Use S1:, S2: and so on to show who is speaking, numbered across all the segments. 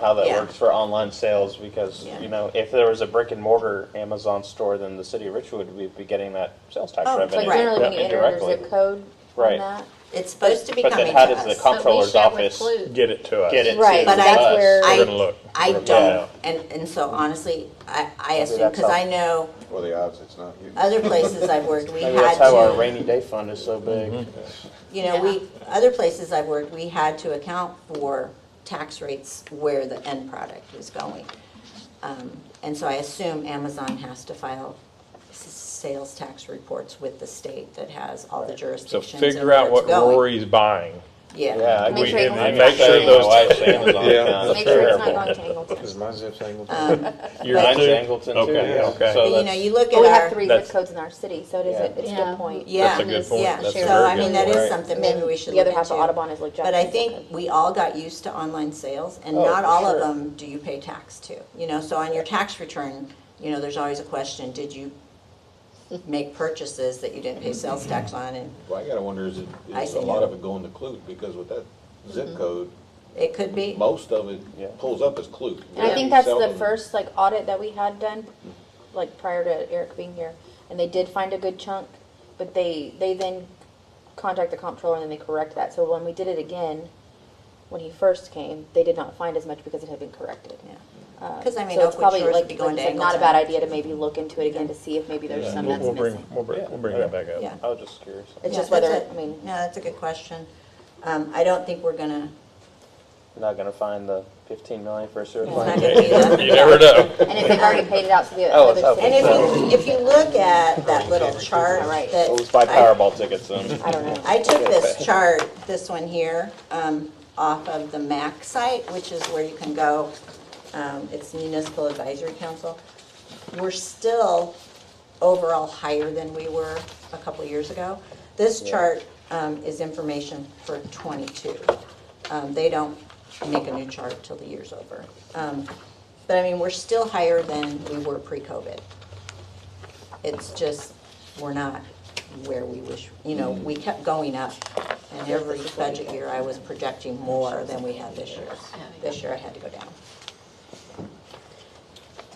S1: how that
S2: Yeah.
S1: works for online sales because,
S2: Yeah.
S1: you know, if there was a brick and mortar Amazon store, then the city of Richwood would be getting that sales tax
S2: Oh, it's
S3: It's
S1: revenue
S3: like generally when you enter their
S1: indirectly.
S3: zip code
S1: Right.
S3: on that.
S2: It's supposed to be
S1: But
S2: coming
S1: then
S2: to
S1: how does the
S2: us.
S1: comptroller's
S4: But we
S1: office
S4: shall include-
S5: Get it to us.
S1: get it to
S3: Right,
S2: but I-
S1: us?
S3: where-
S5: We're
S2: I-
S5: gonna look.
S2: I
S5: We're gonna
S1: Yeah.
S2: don't, and, and so honestly, I, I
S1: Maybe
S2: assume,
S1: that's
S2: because I
S1: how-
S2: know
S6: Well, the odds, it's not you.
S2: other places I've worked, we
S1: Maybe
S2: had
S1: that's how our
S2: to, Mm-hmm.
S1: rainy day fund is so big.
S2: you know, we, other places I've worked, we had to account for tax rates where the end product was going. Um, And so I assume Amazon has to file s- sales tax reports with the state that has all the
S5: So
S2: jurisdictions and
S5: figure
S2: where
S5: out
S2: it's
S5: what
S2: going.
S5: Rory's buying.
S2: Yeah,
S1: Yeah. I
S5: We-
S1: could-
S3: sure it's
S5: and
S3: not
S5: then
S1: I'm
S5: Make
S1: not
S5: sure
S1: saying my
S5: those,
S1: wife's Amazon account
S6: Yeah.
S1: is
S3: Make sure it's not
S1: terrible.
S3: going to Angleton.
S6: Is my zip tangled?
S3: Uh,
S5: you're
S1: Mine's
S5: too-
S1: Angleton too.
S5: Okay,
S1: yeah.
S5: okay.
S1: So
S2: Um, but you know,
S1: that's-
S2: you look at
S3: But
S2: our.
S3: we have three zip
S5: That's-
S3: codes in our city, so it is,
S1: Yeah.
S3: a- it's a
S4: Yeah.
S3: good point.
S2: Yeah.
S5: That's a good point.
S2: Yeah,
S5: That's a
S2: so
S5: very
S2: I mean,
S5: good
S2: that is
S1: point.
S2: something
S3: And then
S2: maybe we should
S3: the
S2: look
S3: other
S2: into.
S3: half of Audubon is like
S2: But I
S3: Jackson's
S2: think
S3: zip
S2: we all got used to online sales and
S1: Oh,
S2: not
S1: for
S2: all of
S1: sure.
S2: them do you pay tax to. You know, so on your tax return, you know, there's always a question, did you make purchases that you didn't pay sales tax on? And
S6: Well, I gotta wonder, is it,
S2: I
S6: is
S2: see.
S6: a lot of it going to Clute, because with that
S3: Mm-hmm.
S6: zip code,
S2: it could be,
S6: most of
S1: Yeah.
S6: it pulls up as Clute.
S3: And I
S6: Very
S3: think that's the
S6: seldom-
S3: first like audit that we had done, like prior to Eric being here, and they did find a good chunk, but they, they then contact the comptroller and then they correct that, so when we did it again, when he first came, they did not find as much because it had been corrected.
S2: yeah.
S3: Uh,
S2: 'Cause I mean,
S3: so it's
S2: Oakwood
S3: probably
S2: Shores
S3: like-
S2: would be going
S3: like
S2: to
S3: you said, Not a
S2: Angleton.
S3: bad idea to maybe look into it again to see if maybe there's some
S5: We'll,
S3: that's
S5: we'll bring,
S3: missing.
S5: we'll bring, we'll bring that back up.
S2: Yeah.
S1: I was just curious.
S3: It's
S2: Yeah,
S3: just whether,
S2: that's a-
S3: I mean,
S2: No, that's a good question. Um, I don't think we're gonna,
S1: You're not gonna find the fifteen million for a sewer
S2: it's not
S1: plant.
S2: gonna be that.
S5: You never know.
S3: and if they've already paid it out to the
S1: Oh, it's
S3: other
S1: open.
S2: And
S3: cities,
S2: if you, if you look at that little chart
S3: Right.
S2: that.
S1: Let's buy
S2: I-
S1: Powerball tickets then.
S3: I don't know.
S2: I took this chart, this one here, um, off of the MAC site, which is where you can go. um, It's Municipal Advisory Council. We're still overall higher than we were a couple years ago. This chart um, is information for '22. They don't make a new chart till the year's over. Um, But I mean, we're still higher than we were pre-COVID. It's just, we're not where we wish, you know, we kept going up. And every budget year, I was projecting more than we had this year. This year, I had to go down.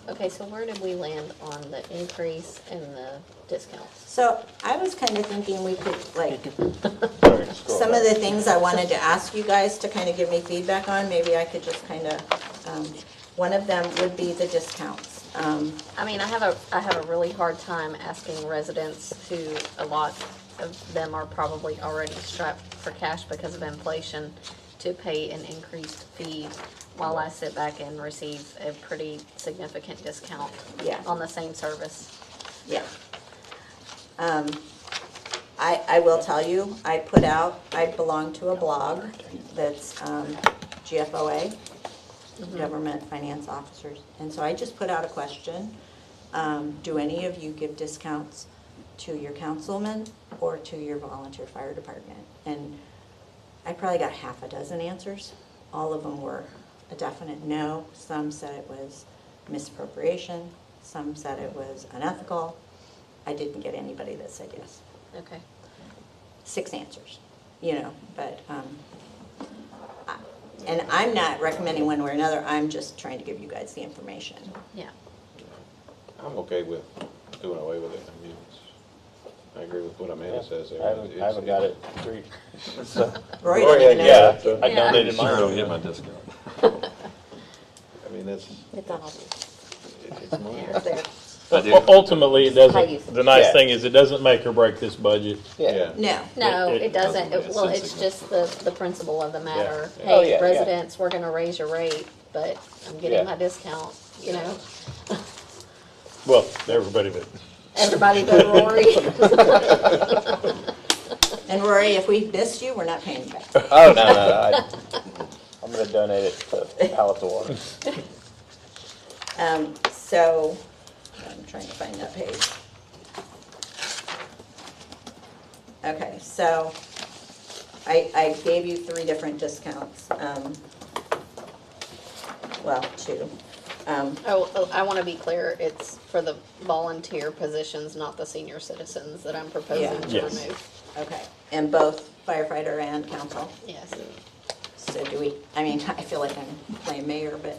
S4: Okay, so where did we land on the increase in the discounts?
S2: So I was kind of thinking we could, like,
S1: Sorry, scroll
S2: some
S1: down.
S2: of the things I wanted to ask you guys to kind of give me feedback on, maybe I could just kind of, um, one of them would be the discounts. Um,
S4: I mean, I have a, I have a really hard time asking residents who, a lot of them are probably already strapped for cash because of inflation, to pay an increased fee while I sit back and receive a pretty significant discount
S2: Yeah.
S4: on the same service.
S2: Yeah. Um, I, I will tell you, I put out, I belong to a blog that's um, GFOA, Government Finance Officers. And so I just put out a question. Um, Do any of you give discounts to your councilmen or to your volunteer fire department? And I probably got half a dozen answers. All of them were a definite no. Some said it was misappropriation, some said it was unethical. I didn't get anybody that said yes.
S4: Okay.
S2: Six answers, you know, but, um, I- and I'm not recommending one way or another, I'm just trying to give you guys the information.
S4: Yeah.
S6: I'm okay with doing away with it, I mean, it's, I agree with what
S1: Yeah.
S6: Amanda says there.
S1: I haven't, I haven't got it. Three. So,
S2: Rory
S6: Rory
S2: didn't even
S6: had
S1: yeah, I
S2: know.
S6: Oh, Yeah.
S4: Yeah.
S1: donated mine.
S7: hit my discount.
S6: I mean, that's,
S3: it's on all these.
S6: it's money.
S3: It's there.
S5: Well, Ultimately, it
S3: High usage.
S5: doesn't, the nice
S1: Yeah.
S5: thing is it doesn't make or break this budget.
S1: Yeah.
S2: No,
S4: No,
S5: It- it
S4: it doesn't.
S7: doesn't.
S4: It- Well,
S7: It's
S4: it's just the, the principle of the matter.
S1: Yeah. Oh, yeah,
S4: Hey,
S1: yeah.
S4: residents, we're gonna raise your rate, but I'm
S1: Yeah.
S4: getting my discount, you know?
S5: Well, everybody but
S4: Everybody but Rory.
S2: and Rory, if we missed you, we're not paying you back.
S1: Oh, no, no, no. I, I'm gonna donate it to Palace of Water.
S2: Um, so, I'm trying to find that page. Okay, so I, I gave you three different discounts, um, well, two. Um,
S4: Oh, oh, I want to be clear, it's for the volunteer positions, not the senior citizens that I'm proposing
S2: Yeah.
S4: to
S5: Yes.
S4: remove.
S2: okay, and both firefighter and council.
S4: Yes.
S2: So do we, I mean, I feel like I'm playing mayor, but